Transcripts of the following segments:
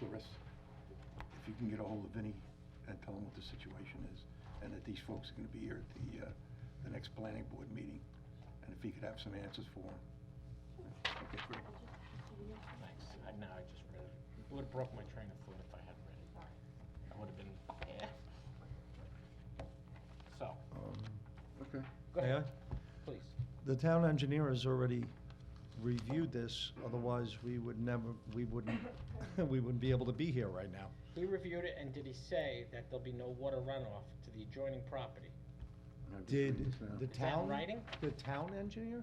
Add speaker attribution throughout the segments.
Speaker 1: Doris, if you can get a hold of Vinnie and tell him what the situation is, and that these folks are gonna be here at the, uh, the next planning board meeting, and if he could have some answers for him. Okay, great.
Speaker 2: Thanks. I know, I just read it. Would've broke my train of thought if I hadn't read it. I would've been, eh. So,
Speaker 1: Um, Okay.
Speaker 2: go ahead,
Speaker 3: May I?
Speaker 2: please.
Speaker 3: The town engineer has already reviewed this, otherwise we would never, we wouldn't, we wouldn't be able to be here right now.
Speaker 2: He reviewed it, and did he say that there'll be no water runoff to the adjoining property?
Speaker 3: Did the
Speaker 2: Is that in
Speaker 3: town?
Speaker 2: writing?
Speaker 3: The town engineer?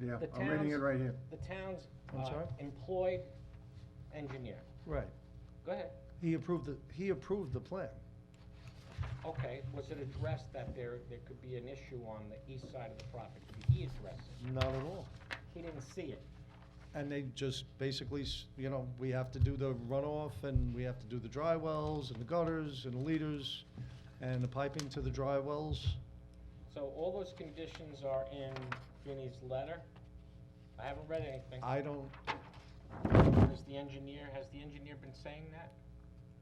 Speaker 1: Yeah,
Speaker 2: The
Speaker 1: I'm reading it
Speaker 2: town's-
Speaker 1: right here.
Speaker 2: The town's
Speaker 3: I'm
Speaker 2: uh,
Speaker 3: sorry?
Speaker 2: employed engineer.
Speaker 3: Right.
Speaker 2: Go ahead.
Speaker 3: He approved the, he approved the plan.
Speaker 2: Okay, was it addressed that there, there could be an issue on the east side of the property? Did he address it?
Speaker 3: Not at all.
Speaker 2: He didn't see it.
Speaker 3: And they just basically, s- you know, we have to do the runoff and we have to do the dry wells and the gutters and the leaders and the piping to the dry wells.
Speaker 2: So all those conditions are in Vinnie's letter? I haven't read anything.
Speaker 3: I don't,
Speaker 2: Is the engineer, has the engineer been saying that?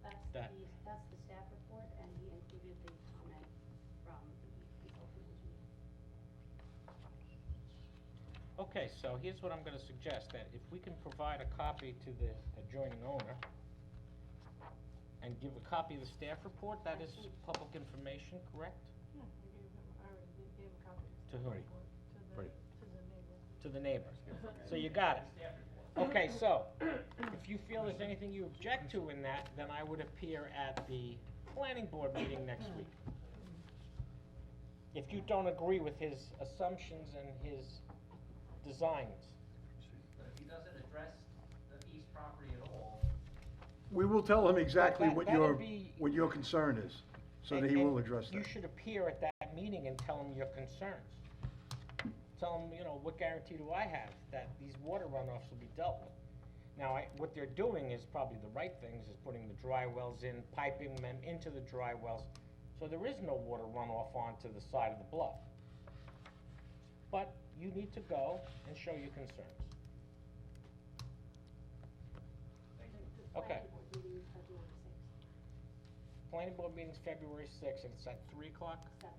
Speaker 4: That's the,
Speaker 2: That-
Speaker 4: that's the staff report, and he included the comment from the consultant engineer.
Speaker 2: Okay, so here's what I'm gonna suggest, that if we can provide a copy to the adjoining owner and give a copy of the staff report, that is public information, correct?
Speaker 5: Yeah, we gave him, I already did give a copy
Speaker 2: To who?
Speaker 5: to the,
Speaker 2: Right.
Speaker 5: to the neighbor.
Speaker 2: To the neighbor. So you got it. Okay, so, if you feel there's anything you object to in that, then I would appear at the planning board meeting next week. If you don't agree with his assumptions and his designs.
Speaker 6: But if he doesn't address the East property at all,
Speaker 1: We will tell him exactly
Speaker 2: That-
Speaker 1: what
Speaker 2: that'll
Speaker 1: your,
Speaker 2: be-
Speaker 1: what your concern is, so
Speaker 2: And-
Speaker 1: that he will
Speaker 2: and
Speaker 1: address
Speaker 2: You
Speaker 1: that.
Speaker 2: should appear at that meeting and tell him your concerns. Tell him, you know, what guarantee do I have that these water runoffs will be dealt with? Now, I, what they're doing is probably the right things, is putting the dry wells in, piping them into the dry wells, so there is no water runoff onto the side of the bluff. But you need to go and show your concerns.
Speaker 4: The
Speaker 2: Okay.
Speaker 4: planning board meeting is February sixth,
Speaker 2: Planning board meeting's February sixth, and it's at three o'clock,
Speaker 4: seven.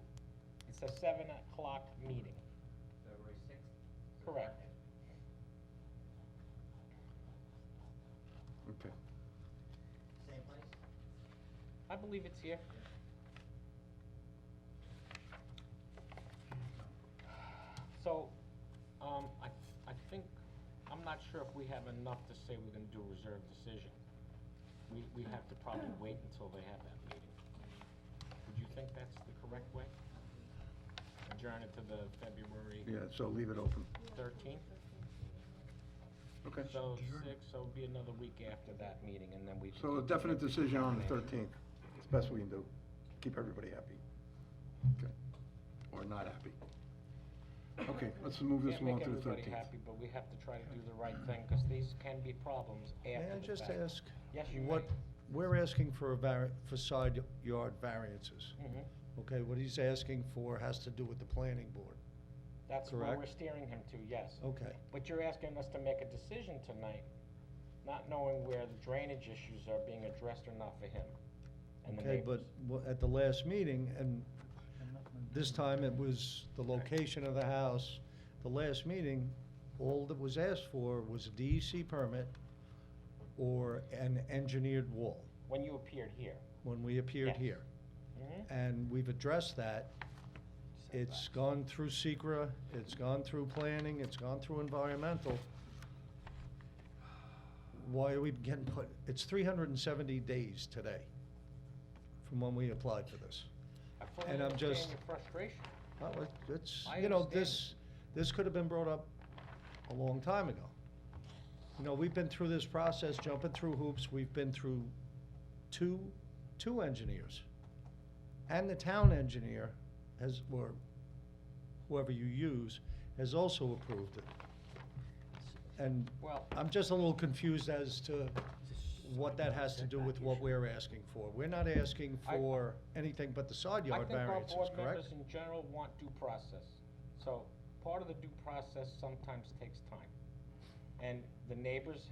Speaker 2: it's a seven o'clock meeting.
Speaker 6: February sixth.
Speaker 2: Correct.
Speaker 1: Okay.
Speaker 6: Same place?
Speaker 2: I believe it's here. So, um, I, I think, I'm not sure if we have enough to say we're gonna do a reserved decision. We, we have to probably wait until they have that meeting. Would you think that's the correct way? Adjourn it to the February
Speaker 1: Yeah, so leave it open.
Speaker 2: thirteenth?
Speaker 1: Okay.
Speaker 2: So six, so it'd be another week after that meeting, and then we. can
Speaker 1: So a
Speaker 2: continue.
Speaker 1: definite decision on the thirteenth, it's best we can do, keep everybody happy. Okay. Or not happy. Okay, let's move this
Speaker 2: Can't
Speaker 1: along
Speaker 2: make
Speaker 1: to the
Speaker 2: everybody
Speaker 1: thirteenth.
Speaker 2: happy, but we have to try to do the right thing, because these can be problems
Speaker 3: may
Speaker 2: after
Speaker 3: I
Speaker 2: the
Speaker 3: just
Speaker 2: fact.
Speaker 3: ask?
Speaker 2: Yes, you
Speaker 3: What,
Speaker 2: may.
Speaker 3: we're asking for a vari, for side yard variances.
Speaker 2: Mhm.
Speaker 3: Okay, what he's asking for has to do with the planning board.
Speaker 2: That's where we're
Speaker 3: Correct.
Speaker 2: steering him to, yes.
Speaker 3: Okay,
Speaker 2: But you're asking us to make a decision tonight, not knowing where the drainage issues are being addressed or not for him. and the
Speaker 3: okay, but
Speaker 2: neighbors.
Speaker 3: wha- at the last meeting, and this time it was the location of the house. The last meeting, all that was asked for was a DEC permit or an engineered wall
Speaker 2: When you appeared here.
Speaker 3: when we appeared
Speaker 2: Yes.
Speaker 3: here.
Speaker 2: Mhm.
Speaker 3: And we've addressed that. It's gone through SECR, it's gone through planning, it's gone through environmental. Why are we getting put, it's three hundred and seventy days today from when we applied for this.
Speaker 2: I fully
Speaker 3: and I'm
Speaker 2: understand
Speaker 3: just-
Speaker 2: your frustration.
Speaker 3: Well, it- it's,
Speaker 2: I
Speaker 3: you know,
Speaker 2: understand.
Speaker 3: this, this could have been brought up a long time ago. You know, we've been through this process, jumping through hoops, we've been through two, two engineers. And the town engineer has, or whoever you use, has also approved it. And
Speaker 2: Well-
Speaker 3: I'm just a little confused as to what that has to do with what we're asking for. We're not asking
Speaker 2: I-
Speaker 3: for anything but the side
Speaker 2: I
Speaker 3: yard
Speaker 2: think our
Speaker 3: variances,
Speaker 2: board
Speaker 3: correct?
Speaker 2: members in general want due process. So part of the due process sometimes takes time. And the neighbors